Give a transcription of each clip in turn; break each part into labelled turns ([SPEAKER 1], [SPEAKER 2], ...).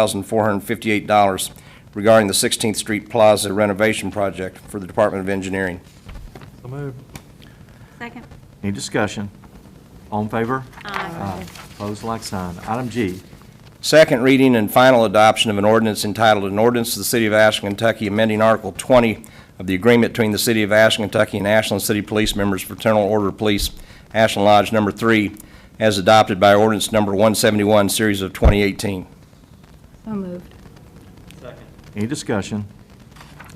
[SPEAKER 1] thousand four hundred and fifty-eight dollars regarding the Sixteenth Street Plaza renovation project for the Department of Engineering.
[SPEAKER 2] So moved.
[SPEAKER 3] Second.
[SPEAKER 4] Any discussion? All in favor?
[SPEAKER 3] Aye.
[SPEAKER 4] Pose like sign. Item G,
[SPEAKER 1] Second reading and final adoption of an ordinance entitled, "An Ordinance to the City of Ashland, Kentucky amending Article 20 of the Agreement between the City of Ashland, Kentucky and Ashland City Police Members Fraternal Order Police, Ashland Lodge Number 3, as adopted by ordinance number 171, Series of 2018."
[SPEAKER 5] So moved.
[SPEAKER 2] Second.
[SPEAKER 4] any discussion?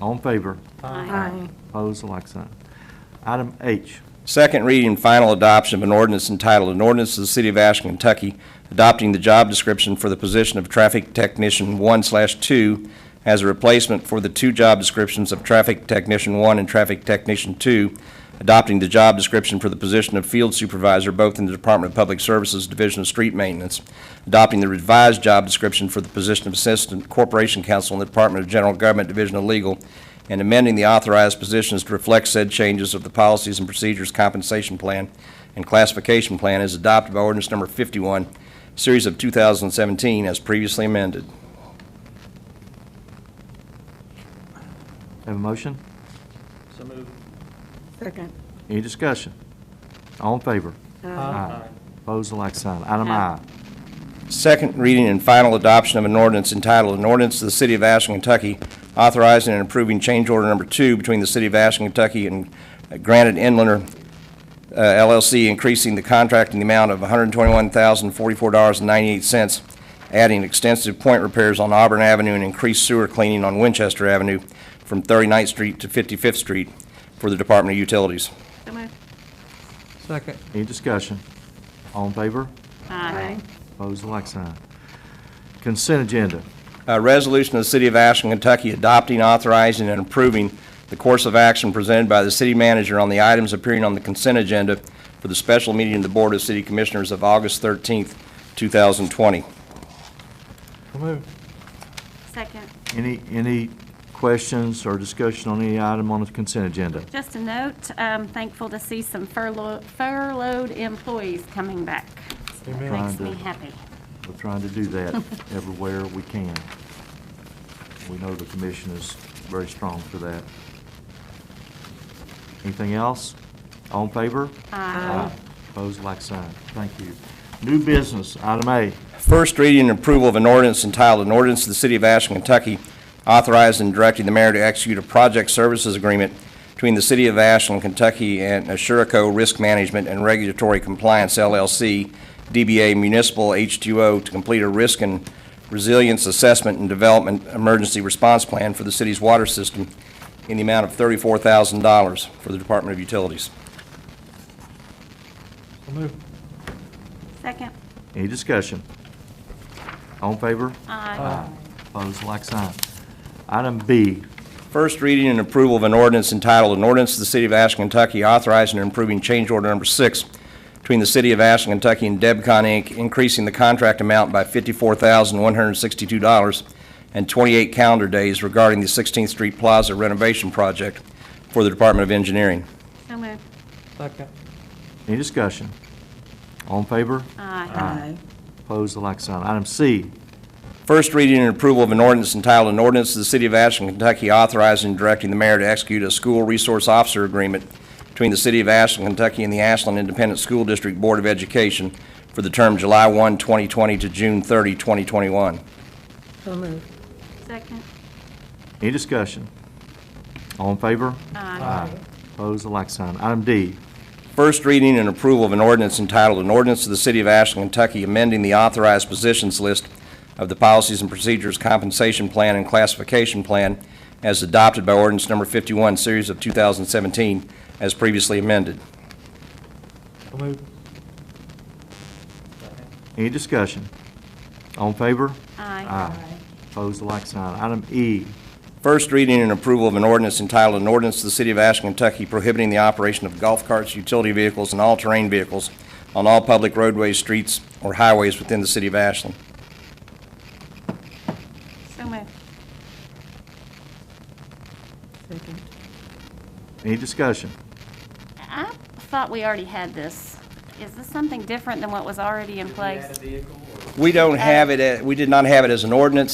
[SPEAKER 4] All in favor?
[SPEAKER 5] Aye.
[SPEAKER 4] Pose like sign. Item H,
[SPEAKER 1] Second reading and final adoption of an ordinance entitled, "An Ordinance to the City of Ashland, Kentucky adopting the job description for the position of Traffic Technician 1/2 as a replacement for the two job descriptions of Traffic Technician 1 and Traffic Technician 2, adopting the job description for the position of Field Supervisor both in the Department of Public Services Division of Street Maintenance, adopting the revised job description for the position of Assistant Corporation Counsel in the Department of General Government Division of Legal, and amending the authorized positions to reflect said changes of the Policies and Procedures Compensation Plan and Classification Plan as adopted by ordinance number 51, Series of 2017, as previously amended.
[SPEAKER 4] have a motion?
[SPEAKER 2] So moved.
[SPEAKER 5] Second.
[SPEAKER 4] Any discussion? All in favor? Pose like sign. Item I,
[SPEAKER 1] Second reading and final adoption of an ordinance entitled, "An Ordinance to the City of Ashland, Kentucky authorizing and approving change order number two between the City of Ashland, Kentucky and Granite Inlander uh, LLC, increasing the contract in the amount of $121,044.98, adding extensive point repairs on Auburn Avenue and increased sewer cleaning on Winchester Avenue from 39th Street to 55th Street for the Department of Utilities."
[SPEAKER 3] So moved.
[SPEAKER 2] Second.
[SPEAKER 4] any discussion? All in favor?
[SPEAKER 3] Aye.
[SPEAKER 4] Pose like sign. Consent agenda,
[SPEAKER 1] A resolution of the City of Ashland, Kentucky adopting, authorizing, and approving the course of action presented by the city manager on the items appearing on the consent agenda for the special meeting of the Board of City Commissioners of August 13th, 2020.
[SPEAKER 2] So moved.
[SPEAKER 3] Second.
[SPEAKER 4] any, any questions or discussion on any item on the consent agenda?
[SPEAKER 3] Just a note, I'm thankful to see some furlough- furloughed employees coming back.
[SPEAKER 2] Amen.
[SPEAKER 3] Makes me
[SPEAKER 4] Wonderful.
[SPEAKER 3] happy.
[SPEAKER 4] We're trying to do that everywhere we can. We know the commission is very strong for that. Anything else? All in favor? Aye. Opposed, like sign. Thank you. New business, item A.
[SPEAKER 1] First reading and approval of an ordinance entitled, "An Ordinance to the City of Ashland, Kentucky authorizing and directing the mayor to execute a project services agreement between the City of Ashland, Kentucky and Assurico Risk Management and Regulatory Compliance LLC, DBA Municipal H2O, to complete a risk and resilience assessment and development emergency response plan for the city's water system in the amount of $34,000 for the Department of Utilities.
[SPEAKER 2] So moved.
[SPEAKER 3] Second.
[SPEAKER 4] Any discussion? All in favor?
[SPEAKER 3] Aye.
[SPEAKER 4] Opposed, like sign. Item B,
[SPEAKER 1] First reading and approval of an ordinance entitled, "An Ordinance to the City of Ashland, Kentucky authorizing and improving change order number six between the City of Ashland, Kentucky and Debcon, Inc., increasing the contract amount by $54,162 and 28 calendar days regarding the 16th Street Plaza renovation project for the Department of Engineering."
[SPEAKER 3] So moved.
[SPEAKER 2] Second.
[SPEAKER 4] any discussion? All in favor?
[SPEAKER 3] Aye.
[SPEAKER 4] Opposed, like sign. Item C,
[SPEAKER 1] First reading and approval of an ordinance entitled, "An Ordinance to the City of Ashland, Kentucky authorizing and directing the mayor to execute a school resource officer agreement between the City of Ashland, Kentucky and the Ashland Independent School District Board of Education for the term July 1, 2020 to June 30, 2021."
[SPEAKER 5] So moved.
[SPEAKER 3] Second.
[SPEAKER 4] any discussion? All in favor?
[SPEAKER 3] Aye.
[SPEAKER 4] Opposed, like sign. Item D,
[SPEAKER 1] First reading and approval of an ordinance entitled, "An Ordinance to the City of Ashland, Kentucky amending the authorized positions list of the Policies and Procedures Compensation Plan and Classification Plan as adopted by ordinance number 51, Series of 2017, as previously amended."
[SPEAKER 2] So moved.
[SPEAKER 4] Any discussion? All in favor?
[SPEAKER 3] Aye.
[SPEAKER 4] Opposed, like sign. Item E,
[SPEAKER 1] First reading and approval of an ordinance entitled, "An Ordinance to the City of Ashland, Kentucky prohibiting the operation of golf carts, utility vehicles, and all-terrain vehicles on all public roadways, streets, or highways within the City of Ashland."
[SPEAKER 3] So moved.
[SPEAKER 5] Second.
[SPEAKER 4] any discussion?
[SPEAKER 3] I thought we already had this. Is this something different than what was already in place?
[SPEAKER 1] We don't have it, we did uh, not have it as an ordinance.